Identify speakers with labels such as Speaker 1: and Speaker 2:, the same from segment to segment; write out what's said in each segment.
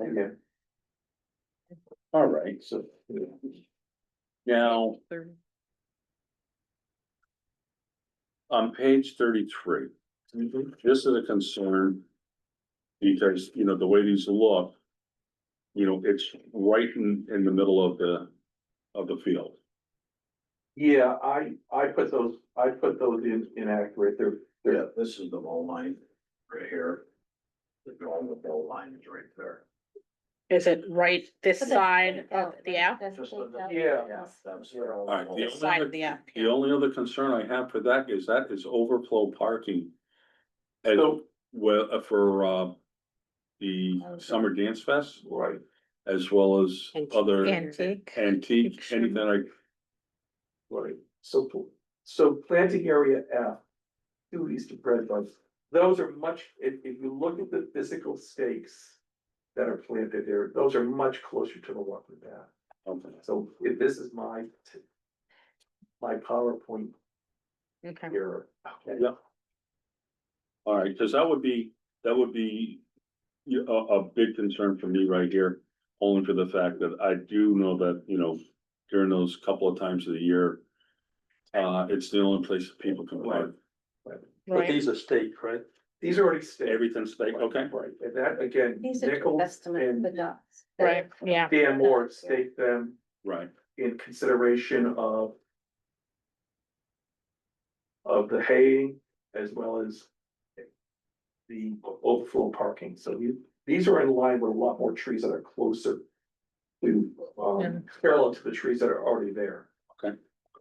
Speaker 1: Yeah. All right, so. Now, on page thirty-three, this is a concern. Because, you know, the way these look. You know, it's right in, in the middle of the, of the field.
Speaker 2: Yeah, I, I put those, I put those in inaccurate, they're,
Speaker 3: Yeah, this is the goal line right here. The goal, the goal line is right there.
Speaker 4: Is it right this
Speaker 5: But that's
Speaker 4: side
Speaker 5: staked
Speaker 4: of
Speaker 5: out,
Speaker 4: the
Speaker 5: right?
Speaker 4: app?
Speaker 5: That's
Speaker 3: Just
Speaker 5: staked
Speaker 3: the-
Speaker 5: out.
Speaker 2: Yeah.
Speaker 3: That's the goal.
Speaker 1: Alright, the
Speaker 4: This side of
Speaker 1: only
Speaker 4: the
Speaker 1: other,
Speaker 4: app,
Speaker 1: the
Speaker 4: yeah.
Speaker 1: only other concern I have for that is that is overflow parking. And
Speaker 2: So-
Speaker 1: well, uh, for uh, the summer dance fest
Speaker 2: right.
Speaker 1: as well as other
Speaker 4: Antique.
Speaker 1: antique, anything like.
Speaker 2: Right, so, pl- so planting area F, two east of Bread Bus, those are much, if, if you look at the physical stakes. That are planted there, those are much closer to the water path,
Speaker 1: okay.
Speaker 2: so if this is my. t- My PowerPoint
Speaker 4: Okay.
Speaker 2: error.
Speaker 1: Yeah. All right, because that would be, that would be you- a, a big concern for me right here. Only for the fact that I do know that, you know, during those couple of times of the year, uh, it's the only place that people can park.
Speaker 4: Right.
Speaker 3: are staked, right?
Speaker 2: These are already staked.
Speaker 1: Everything's staked, okay?
Speaker 2: Right, and that again,
Speaker 5: These are
Speaker 2: Nichols
Speaker 5: estimate for
Speaker 2: and
Speaker 5: dogs.
Speaker 4: Right, yeah.
Speaker 2: Dan Moore staked them
Speaker 1: Right,
Speaker 2: in consideration of. Of the haying as well as. The overflow parking, so you, these are in line with a lot more trees that are closer. To,
Speaker 4: Yeah.
Speaker 2: um, parallel to the trees that are already there,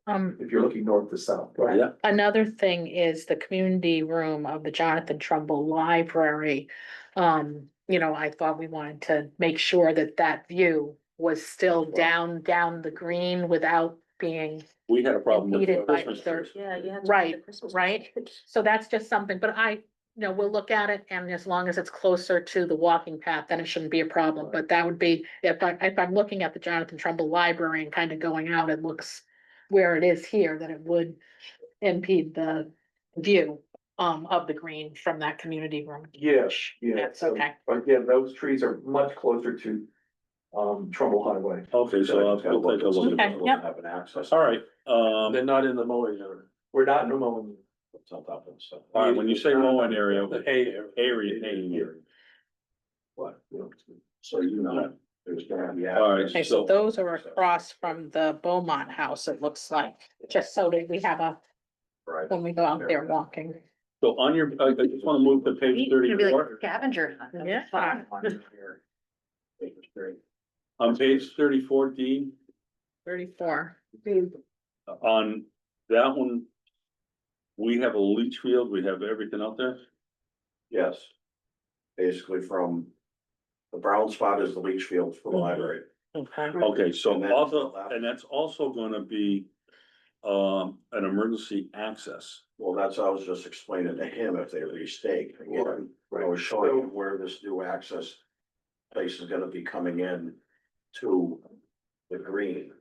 Speaker 4: Um,
Speaker 2: if you're looking north to south.
Speaker 1: Right. Yeah.
Speaker 4: another thing is the community room of the Jonathan Trumbull Library. Um, you know, I thought we wanted to make sure that that view was still down, down the green without being
Speaker 1: we had a problem with
Speaker 4: Impeded by
Speaker 1: Christmas
Speaker 4: their-
Speaker 1: trees.
Speaker 5: Yeah, you have. to do
Speaker 4: Right,
Speaker 5: the Christmas
Speaker 4: right.
Speaker 5: package.
Speaker 4: So that's just something, but I, you know, we'll look at it and as long as it's closer to the walking path, then it shouldn't be a problem. But that would be, if I, if I'm looking at the Jonathan Trumbull Library and kind of going out, it looks where it is here, that it would impede the view um of the green from that community room.
Speaker 2: Yeah, yeah.
Speaker 4: That's
Speaker 2: so-
Speaker 4: okay.
Speaker 2: But again, those trees are much closer to, um, Trumbull Highway.
Speaker 1: Okay, so I'll, I'll take a look at
Speaker 4: Okay,
Speaker 1: that.
Speaker 4: yep.
Speaker 3: Have an access.
Speaker 1: All right, um,
Speaker 3: They're not in the mowing area.
Speaker 2: We're not in a moment.
Speaker 3: It's on top of the stuff.
Speaker 1: all right, when you say mowing area,
Speaker 3: The hay area.
Speaker 1: area, area.
Speaker 2: What? you know,
Speaker 3: So you know, there's gonna be.
Speaker 1: All right,
Speaker 4: Okay,
Speaker 3: access.
Speaker 4: so those are across from the Beaumont House, it looks like, just so that we have a,
Speaker 3: Right.
Speaker 4: when we go out there walking.
Speaker 1: So on your, I I just want to move to page thirty-four.
Speaker 5: scavenger. hunt, that'd be
Speaker 4: Yeah.
Speaker 5: fun.
Speaker 3: Baker Street.
Speaker 1: On page thirty-four, Dean,
Speaker 4: Thirty-four. Mm-hmm.
Speaker 1: on that one, we have a leach field, we have everything out there.
Speaker 3: Yes. Basically from, the brown spot is the leach fields for the
Speaker 4: Mm-hmm.
Speaker 3: library.
Speaker 4: Okay.
Speaker 1: Okay, so
Speaker 3: And that's
Speaker 1: also,
Speaker 3: allowed.
Speaker 1: and that's also gonna be um, an emergency access.
Speaker 3: Well, that's, I was just explaining to him if they restake again. I
Speaker 2: Right.
Speaker 3: was showing him where this new access place is gonna be coming in to the green.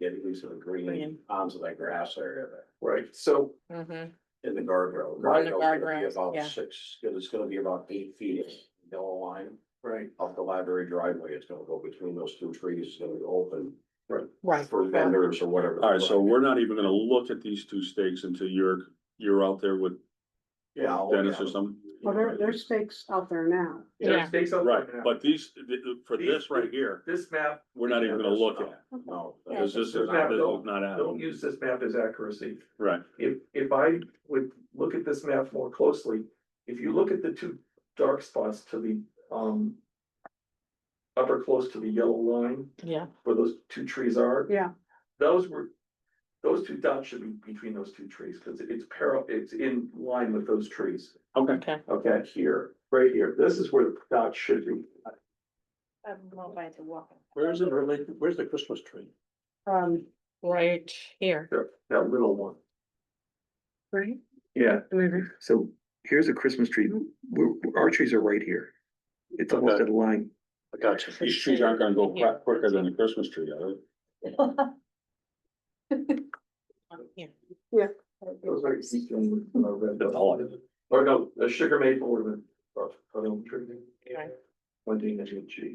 Speaker 3: Getting into the green onto that grass area there
Speaker 2: Right, so
Speaker 4: Mm-hmm.
Speaker 3: in the guardrail.
Speaker 4: On the
Speaker 3: Guardrail's gonna be
Speaker 4: guardrails,
Speaker 3: about
Speaker 4: yeah.
Speaker 3: Six, it's gonna be about eight feet of yellow line
Speaker 2: Right,
Speaker 3: up the library driveway. It's gonna go between those two trees. It's gonna be open
Speaker 4: Right.
Speaker 3: for vendors or whatever.
Speaker 1: All right, so we're not even gonna look at these two stakes until you're, you're out there with
Speaker 3: Yeah. I'll-
Speaker 1: Dennis or something.
Speaker 6: Well, there, there's stakes out there now.
Speaker 2: there
Speaker 4: Yeah.
Speaker 2: stays on.
Speaker 1: Right, but these, for this right here,
Speaker 2: This map,
Speaker 1: we're not even gonna look at, it,
Speaker 3: No.
Speaker 1: because this is, this is not
Speaker 2: don't
Speaker 1: out,
Speaker 2: use this map as accuracy.
Speaker 1: right,
Speaker 2: If, if I would look at this map more closely, if you look at the two dark spots to the, um. Upper close to the yellow line
Speaker 4: Yeah,
Speaker 2: where those two trees are.
Speaker 6: Yeah.
Speaker 2: Those were, those two dots should be between those two trees, cause it's parallel, it's in line with those trees.
Speaker 1: okay.
Speaker 4: okay.
Speaker 2: Okay, here, right here, this is where the dot should be.
Speaker 5: I don't know if I had to walk.
Speaker 3: Where is it related? Where's the Christmas tree?
Speaker 6: Um,
Speaker 4: Right here.
Speaker 2: There, that little one.
Speaker 4: Right.
Speaker 7: Yeah,
Speaker 4: Mhm.
Speaker 7: so here's a Christmas tree. We're, our trees are right here. It's almost
Speaker 1: Okay.
Speaker 7: at a line.
Speaker 1: I got you. These trees aren't gonna go
Speaker 4: Yeah.
Speaker 1: quick- quicker than the Christmas tree, are
Speaker 4: Um, yeah.
Speaker 2: Those are eastern, uh, red
Speaker 1: they?
Speaker 2: dots. Or no, the sugar maple would have been. or- or the tree.
Speaker 4: Right.
Speaker 2: One thing that you achieve.